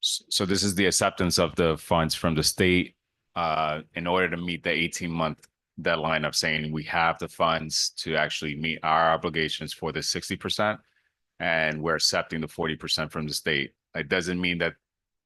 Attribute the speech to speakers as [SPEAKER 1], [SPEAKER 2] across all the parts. [SPEAKER 1] So this is the acceptance of the funds from the state uh in order to meet the eighteen month deadline of saying we have the funds to actually meet our obligations for the sixty percent. And we're accepting the forty percent from the state. It doesn't mean that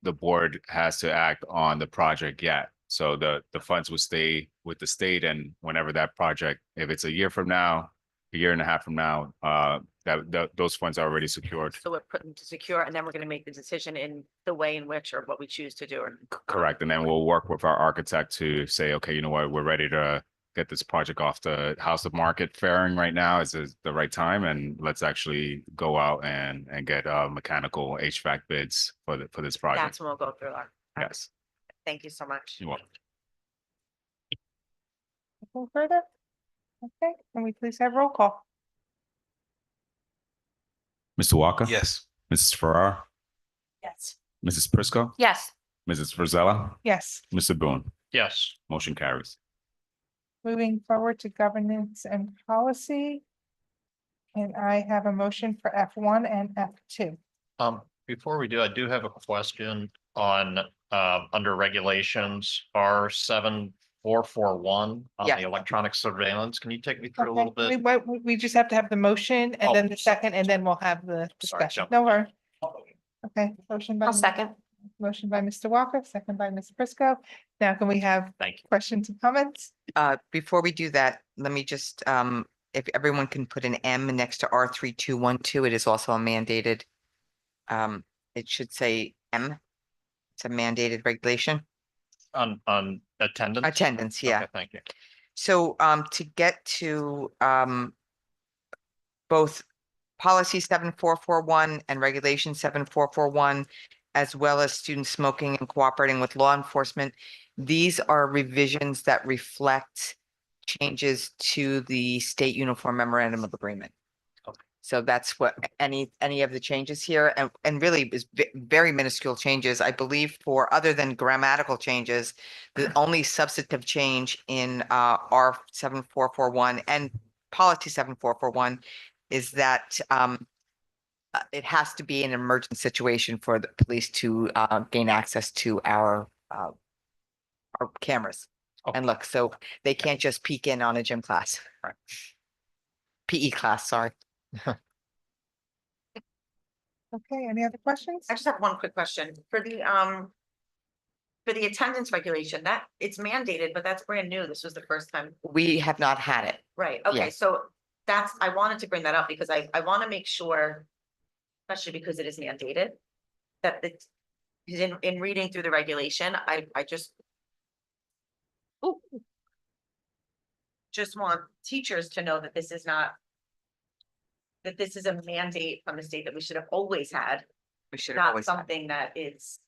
[SPEAKER 1] the board has to act on the project yet. So the the funds will stay with the state and whenever that project, if it's a year from now, a year and a half from now, uh that that those funds are already secured.
[SPEAKER 2] So we're putting to secure and then we're going to make the decision in the way in which or what we choose to do or.
[SPEAKER 1] C- Correct, and then we'll work with our architect to say, okay, you know what, we're ready to get this project off the house of market fairing right now. Is this the right time? And let's actually go out and and get uh mechanical HVAC bids for the for this project.
[SPEAKER 2] That's when we'll go through our.
[SPEAKER 1] Yes,
[SPEAKER 2] Thank you so much.
[SPEAKER 1] you want.
[SPEAKER 3] Anything further? Okay, can we please have roll call?
[SPEAKER 1] Mr. Walker?
[SPEAKER 4] Yes.
[SPEAKER 1] Mrs. Farrar,
[SPEAKER 3] Yes.
[SPEAKER 1] Mrs. Prisco,
[SPEAKER 2] Yes,
[SPEAKER 1] Mrs. Frizella,
[SPEAKER 3] Yes,
[SPEAKER 1] Mr. Boone,
[SPEAKER 4] Yes.
[SPEAKER 1] motion carries.
[SPEAKER 3] moving forward to governance and policy. And I have a motion for F one and F two.
[SPEAKER 4] Um, before we do, I do have a question on, uh, under regulations, R seven four four one on
[SPEAKER 2] Yeah.
[SPEAKER 4] the electronic surveillance. Can you take me through a
[SPEAKER 3] Okay,
[SPEAKER 4] little
[SPEAKER 3] we,
[SPEAKER 4] bit?
[SPEAKER 3] we- we just have to have the motion
[SPEAKER 4] Oh,
[SPEAKER 3] and then the
[SPEAKER 4] sorry.
[SPEAKER 3] second, and then we'll have the discussion.
[SPEAKER 4] jump.
[SPEAKER 3] No worry. Okay, motion by.
[SPEAKER 2] I'll second.
[SPEAKER 3] Motion by Mr. Walker, second by Ms. Prisco. Now can we have
[SPEAKER 4] Thank you.
[SPEAKER 3] questions and comments?
[SPEAKER 5] Uh, before we do that, let me just, um, if everyone can put an M next to R three two one two, it is also a mandated. Um, it should say M. It's a mandated regulation,
[SPEAKER 4] On, on attendance?
[SPEAKER 5] attendance, yeah.
[SPEAKER 4] Okay, Thank you.
[SPEAKER 5] So um to get to um both policy seven four four one and regulation seven four four one, as well as student smoking and cooperating with law enforcement, these are revisions that reflect changes to the state uniform memorandum of agreement. So that's what any any of the changes here and and really is ve- very minuscule changes, I believe, for other than grammatical changes. The only substantive change in uh R seven four four one and policy seven four four one is that um. uh, It has to be an emergent situation for the police to uh gain access to our uh. Our cameras
[SPEAKER 4] Okay.
[SPEAKER 5] and look, so they can't just peek in on a gym class.
[SPEAKER 4] Right.
[SPEAKER 5] PE class, sorry.
[SPEAKER 3] Okay, any other questions?
[SPEAKER 2] I just have one quick question for the, um, for the attendance regulation that it's mandated, but that's brand new. This was the first time.
[SPEAKER 5] We have not had it.
[SPEAKER 2] Right, okay,
[SPEAKER 5] Yes.
[SPEAKER 2] so that's, I wanted to bring that up because I, I want to make sure, especially because it is mandated, that the, 'cause in, in reading through the regulation, I, I just Ooh. just want teachers to know that this is not that this is a mandate from the state that we should have always had,
[SPEAKER 5] We should have
[SPEAKER 2] not
[SPEAKER 5] always. had it.
[SPEAKER 2] something that is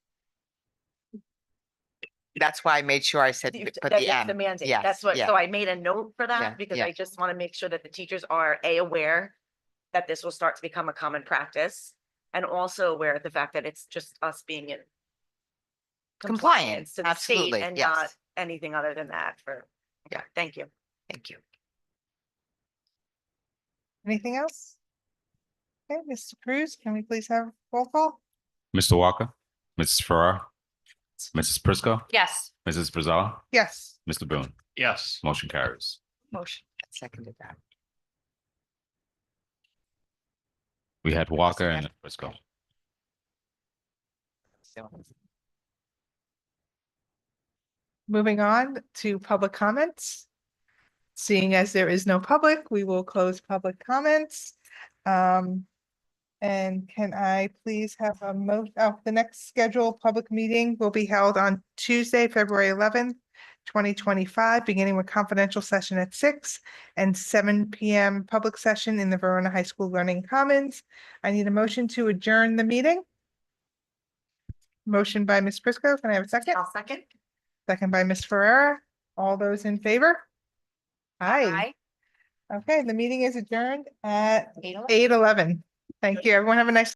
[SPEAKER 5] That's why I made sure I said,
[SPEAKER 2] you-
[SPEAKER 5] th- put
[SPEAKER 2] that
[SPEAKER 5] the
[SPEAKER 2] it's
[SPEAKER 5] M.
[SPEAKER 2] The mandate,
[SPEAKER 5] Yes,
[SPEAKER 2] that's what,
[SPEAKER 5] yeah.
[SPEAKER 2] so I made a note for
[SPEAKER 5] Yeah,
[SPEAKER 2] that because
[SPEAKER 5] yeah.
[SPEAKER 2] I just want to make sure that the teachers are A, aware that this will start to become a common practice and also aware of the fact that it's just us being in
[SPEAKER 5] Compliant,
[SPEAKER 2] to the state
[SPEAKER 5] absolutely,
[SPEAKER 2] And
[SPEAKER 5] yes.
[SPEAKER 2] not anything other than that for,
[SPEAKER 5] Yeah.
[SPEAKER 2] Okay, thank you.
[SPEAKER 5] Thank you.
[SPEAKER 3] Anything else? Okay, Mr. Cruz, can we please have roll call?
[SPEAKER 1] Mr. Walker, Mrs. Farrar, Mrs. Prisco,
[SPEAKER 2] Yes.
[SPEAKER 1] Mrs. Frizella,
[SPEAKER 3] Yes,
[SPEAKER 1] Mr. Boone,
[SPEAKER 4] Yes.
[SPEAKER 1] motion carries.
[SPEAKER 5] Motion. Seconded that.
[SPEAKER 1] We had Walker and Prisco.
[SPEAKER 5] So,
[SPEAKER 3] moving on to public comments. Seeing as there is no public, we will close public comments. Um, and can I please have a mo, oh, the next scheduled public meeting will be held on Tuesday, February eleventh, twenty twenty-five, beginning with confidential session at six and seven P M public session in the Verona High School Learning Commons. I need a motion to adjourn the meeting. Motion by Ms. Prisco. Can I have a second?
[SPEAKER 2] I'll second.
[SPEAKER 3] Second by Ms. Ferrera. All those in favor? Aye. Okay, the meeting is adjourned at
[SPEAKER 2] Aye.
[SPEAKER 3] eight eleven. Thank you. Everyone have a nice